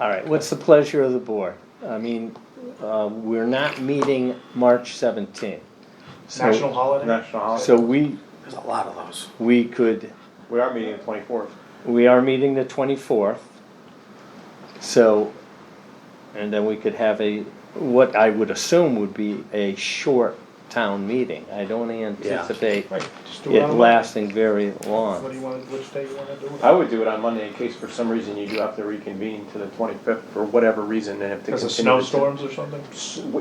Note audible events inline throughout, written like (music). All right, what's the pleasure of the board? I mean, uh, we're not meeting March 17th. So- National holiday? National holiday. So we, There's a lot of those. we could, we are meeting the twenty-fourth. we are meeting the 24th. So, and then we could have a, what I would assume would be a short town meeting. I don't anticipate Right. Just do it it on Monday. lasting very What do you long. want, which day you wanna do I it? would do it on Monday in case for some reason you do have to reconvene to the twenty-fifth for whatever reason and if the. Because of snowstorms or something?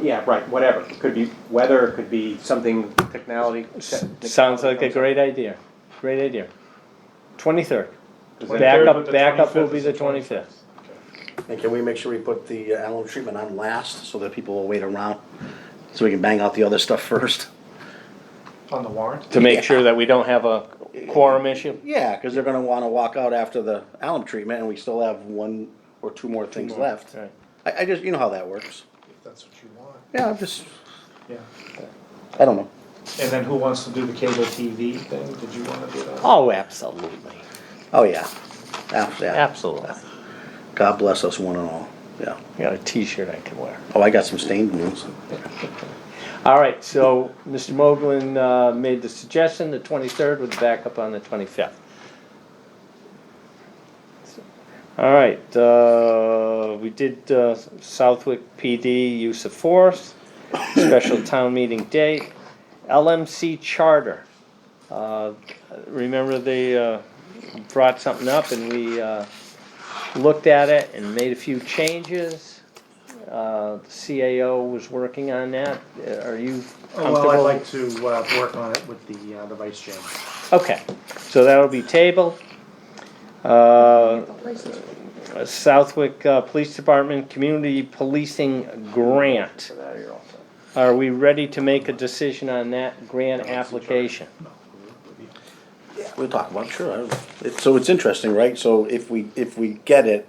Yeah, right, whatever. It Could be weather, it could be something technology. Sounds like a great idea, great idea. 23rd, Is that- but the backup, backup will 25th be is the the 25th. And can we make sure we put the uh, alum treatment on last so that people will wait around? So we can bang out the other stuff first? On the warrant? To make sure that we don't have a quorum issue? Yeah, because they're gonna wanna walk out after the alum treatment and we still have one or two more things left. Right. I, I just, you know how that works. If that's what you want, Yeah, I'm just, yeah. I don't know. And then who wants to do the cable TV thing? Did you wanna do Uh, that? Oh, absolutely, Oh, yeah. Ah, Yeah, absolutely. God bless us one and all, yeah. I Got a T-shirt I can wear. Oh, I got some stained ones. All right, so Mr. Moglen uh, made the suggestion, the 23rd with backup on the 25th. All right, uh, we did uh, Southwick PD use of force, special town meeting date, LMC charter. Uh, Remember they uh, brought something up and we uh, looked at it and made a few changes. Uh, the CAO was working on that. Uh, Are you comfortable? Oh, Well, I'd like to uh, work on it with the, uh, the vice chairman. Okay, so that'll be tabled. Uh, Southwick uh, Police Department Community Policing Grant. For that, you're all set. Are we ready to make a decision on that grant application? We'll talk about, it, sure. I don't- it- So it's interesting, right? So if we, if we get it,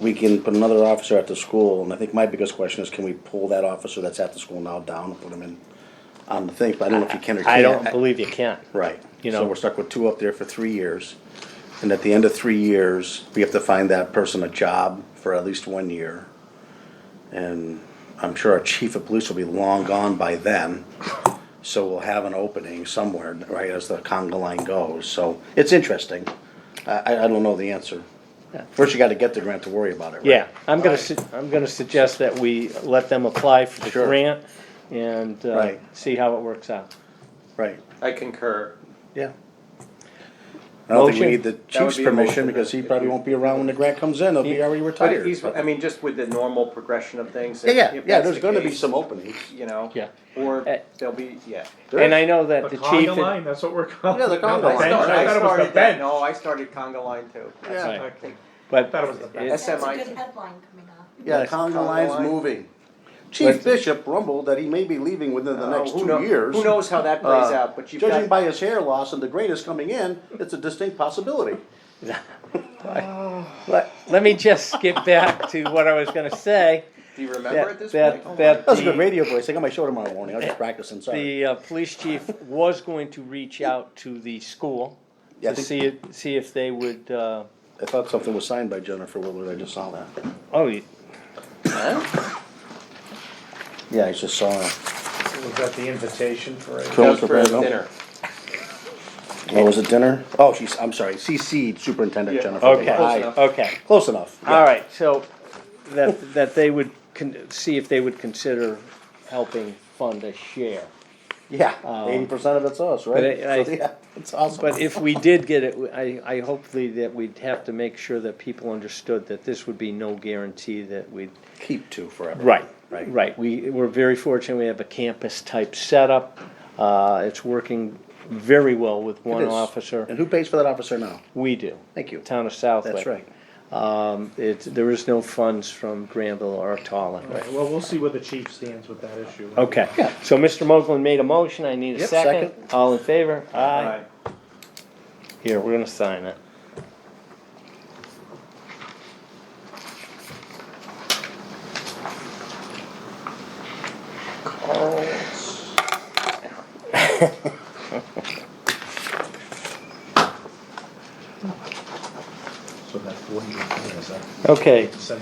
we can put another officer at the school, and I think my biggest question is, can we pull that officer that's at the school now down and put him in on the thing, but I don't know if you can or can't. I don't believe you can. Right, you know. so we're stuck with two up there for three years, and at the end of three years, we have to find that person a job for at least one year. And I'm sure our chief of police will be long gone by then, so we'll have an opening somewhere, right, as the conga line goes, so it's interesting. I, I, I don't know the answer. First, you gotta get the grant to worry about it, right? Yeah, I'm gonna, su- I'm gonna suggest that we let them apply for the Sure. grant and uh, Right. see how it works out. Right, I concur. yeah. I don't think we Motion? need the That would chief's be a motion then, permission, because he if probably you- won't be around when the grant comes in, he'll be already But retired. he's, I mean, just with the normal progression of things. Yeah, if- yeah, if yeah, that's there's the gonna be case, some openings. You know? Yeah. Or Eh. there'll be, yeah. And I know that The the conga chief. line, that's what we're calling it. Yeah, the Not conga line. bench. I No, thought it was the started that. bench. No, I started conga line too. Yeah. Right. Okay. But That was the best. it's- That's a SMI. good headline coming up. Yeah, Yes. Congo Congo line's line. moving. Chief Bishop rumbled that he may be leaving within the Uh, next who two know- years. Who knows how that plays Uh, out, but you've Judging got, by his hair loss and the grain is coming in, it's a distinct possibility. Let, let me just skip back to what I was gonna say. do you remember at that- this that- point? Oh, that- That was a The- good radio voice. I got my show tomorrow morning. I was just practicing, sorry. The uh, police chief was going to reach out to the school Yeah, I to think- see, if- see if they would, uh, I thought something was signed by Jennifer Willard. I just saw that. oh, you- Yeah, I just saw it. Was that the invitation for it? That Killing was for for dinner. Oh, was it dinner? Oh, she's, I'm sorry, CC'd Superintendent Yeah. Jennifer. Willard. Aye. okay, enough. okay. Close enough. yeah. All right, so that, that they would, con- see if they would consider helping fund a share. Yeah, eighty percent of it's us, But right? I- I- So, (laughs) Yeah, it's awesome. But if we did get it, I, I hopefully that we'd have to make sure that people understood that this would be no guarantee that we'd Keep two forever. Right, Right. right. We, we're very fortunate, we have a campus-type setup. Uh, It's working very well with one It is. officer. And who pays for that officer now? We do. Thank you. Town of Southwick. That's right. Um, It's, there is no funds from Granville or Tallinn. Right, Well, we'll see where the chief stands with that issue. Okay, so Mr. Moglen made a motion, I need a Yep, second. second. All in favor? Aye. Right. Here, we're gonna sign it. So that forty is that? Okay, Send